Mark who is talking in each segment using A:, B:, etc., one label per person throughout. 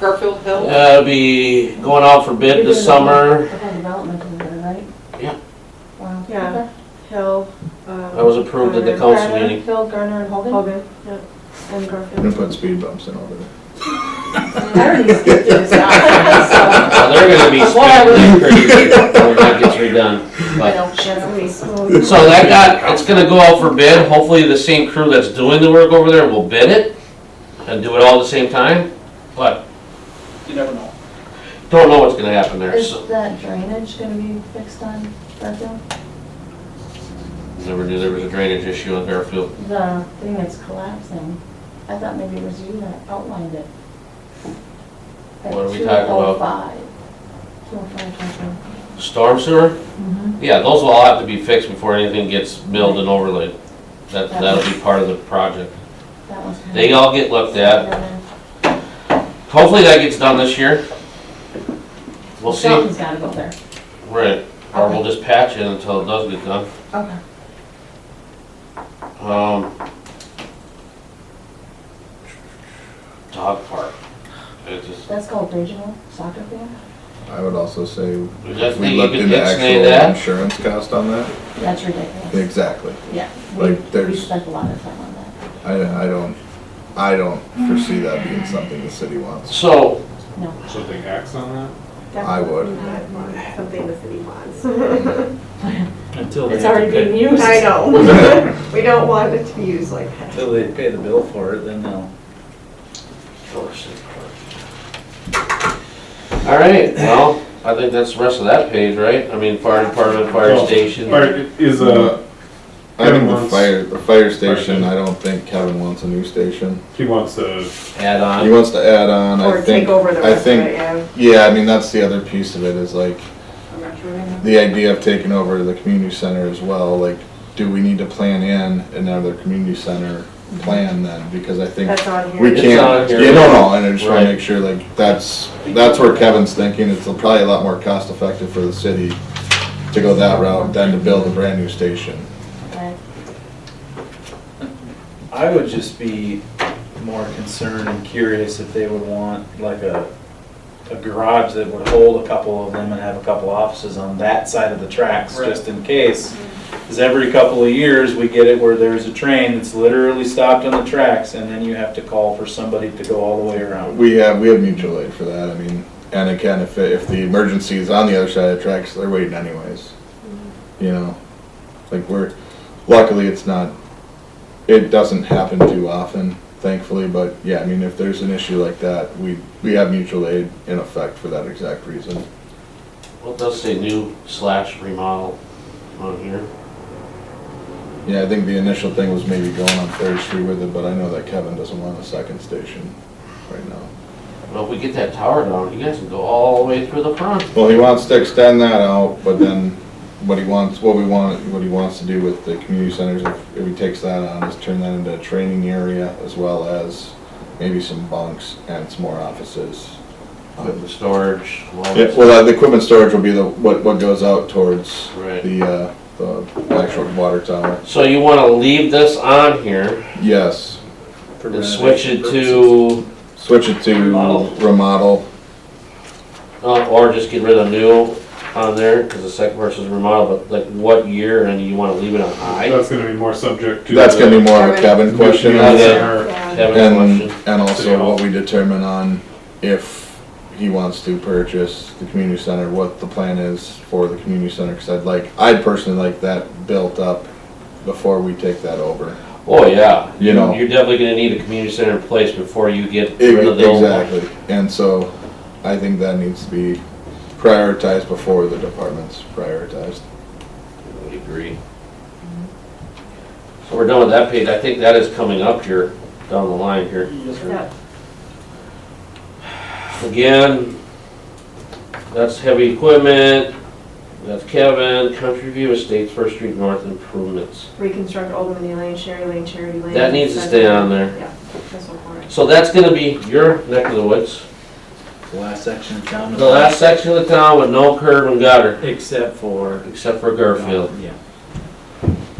A: Garfield Hill?
B: Uh, be going out for bid this summer.
C: The whole development over there, right?
B: Yeah.
C: Wow.
D: Yeah.
C: Okay.
D: Hill. um,
B: That was approved at the
D: Garner-
B: council
C: Garner,
B: meeting.
C: Phil Garner and Hogan.
D: Hogan, yep, and
E: Gonna
D: Garfield.
E: put speed bumps in over there.
C: I already skipped it, so I
B: Now, they're gonna be spending pretty when that gets redone, but.
C: don't
B: So that got, it's gonna go out for bid, hopefully the same crew that's doing the work over there will bid it and do it all at the same time, but
F: You never know.
B: don't know what's gonna happen there,
C: Is
B: so.
C: that drainage gonna be fixed on Garfield?
B: Never knew there was a drainage issue on Fairfield.
C: The thing that's collapsing, I thought maybe it was you that outlined it. oh At
B: What are we talking about?
C: 205. 205, 205.
B: Storm sewer?
C: Mm-hmm.
B: Yeah, those will all have to be fixed before anything gets milled and overlaid. That, that'll be part of the project.
C: that was. kind of-
B: They all get looked at. Hopefully that gets done this year. We'll see.
C: Something's gotta go there.
B: Right, or we'll just patch it until it does get done.
C: Okay.
B: Um, dog park. It just,
C: That's called regional soccer field?
E: I would also say,
B: Is that
E: if we
B: thing you
E: looked
B: could
E: into
B: ex-nay
E: actual
B: that?
E: insurance cost on that,
C: That's ridiculous.
E: exactly.
C: Yeah.
E: Like,
C: We- We
E: there's-
C: spent a lot of time on that.
E: I, I don't, I don't foresee that being something the city wants.
B: so,
C: No.
G: Something acts on that?
E: I would.
D: Something the city wants.
H: Until they
C: It's
H: have to
C: already
H: pay,
C: being used.
D: I know. We don't want it to be used like that.
H: until they pay the bill for it, then they'll.
B: all right, well, I think that's the rest of that page, right? I mean, fire department, fire
G: Well,
B: station.
G: Or is
E: Uh,
G: a,
E: I think
G: Kevin
E: the
G: wants-
E: fire, the fire station,
G: station.
E: I don't think Kevin wants a new station.
G: he wants a,
B: add
E: He
B: on.
E: wants to add on, I
D: Or take
E: think,
D: over the
E: I
D: rest of it,
E: think,
D: yeah.
E: yeah, I mean, that's the other piece of it is like, the idea of taking over the community center as well, like, do we need to plan in another community center plan then? Because I think
D: That's on here.
E: we
B: It's
E: can't,
B: on here.
E: yeah, no, no, and I just wanna
B: Right.
E: make sure, like, that's, that's where Kevin's thinking, it's probably a lot more cost effective for the city to go that route than to build a brand new station.
C: Okay.
H: I would just be more concerned and curious if they would want like a, a garage that would hold a couple of them and have a couple offices on that side of the tracks,
G: Right.
H: just in case. Cause every couple of years, we get it where there's a train that's literally stopped on the tracks and then you have to call for somebody to go all the way around.
E: We have, we have mutual aid for that, I mean, and again, if, it- if the emergency is on the other side of the tracks, they're waiting anyways. You know, like we're, luckily it's not, it doesn't happen too often, thankfully, but yeah, I mean, if there's an issue like that, we, we have mutual aid in effect for that exact reason.
B: What does say new slash remodel on here?
E: Yeah, I think the initial thing was maybe going on Third Street with it, but I know that Kevin doesn't want a second station right now.
B: Well, if we get that tower down, you guys can go all the way through the front.
E: Well, he wants to extend that out, but then what he wants, what we want, what he wants to do with the community centers, if- if he takes that on, is turn that into a training area as well as maybe some bunks and some more offices. Um,
B: Equipment storage. all
E: Yeah,
B: that
E: well, the equipment storage will be the, what, what goes out towards
B: stuff. Right.
E: the, uh, the actual water tower.
B: So you wanna leave this on here
E: Yes,
H: for
B: and switch
H: renovation
B: it
H: purposes.
B: to
E: switch it to
B: Remodel.
E: remodel.
B: Uh, or just get rid of new on there, because the second verse is remodel, but like what year and you wanna leave it on high?
G: that's gonna be more subject to.
E: That's
G: the-
E: gonna be more of a Kevin question.
B: Yeah.
E: I think.
D: Yeah.
B: Kevin,
E: And,
B: question?
E: and
G: City
E: also
G: Hall.
E: what we determine on if he wants to purchase the community center, what the plan is for the community center, cause I'd like, I'd personally like that built up before we take that over.
B: Oh, yeah.
E: You know.
B: You're definitely gonna need a community center in place before you get
E: E-
B: rid of the old one.
E: Exactly, and so I think that needs to be prioritized before the department's prioritized.
B: I agree. So we're done with that page, I think that is coming up here, down the line here.
D: Yeah.
B: Again, that's heavy equipment, that's Kevin, Country View Estates, First Street North improvements.
D: Reconstruct Old Dominion Lane, Sherry Lane, Charity Lane.
B: That needs to stay on there.
D: Yeah, that's what we're-
B: So that's gonna be your neck of the woods.
H: The last section of town.
B: The last section of the town with no curb and gutter,
H: Except for.
B: except for Garfield.
H: Yeah.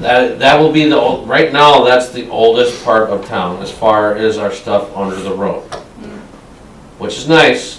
B: That, that will be the, ol- right now, that's the oldest part of town as far as our stuff under the road. which is nice.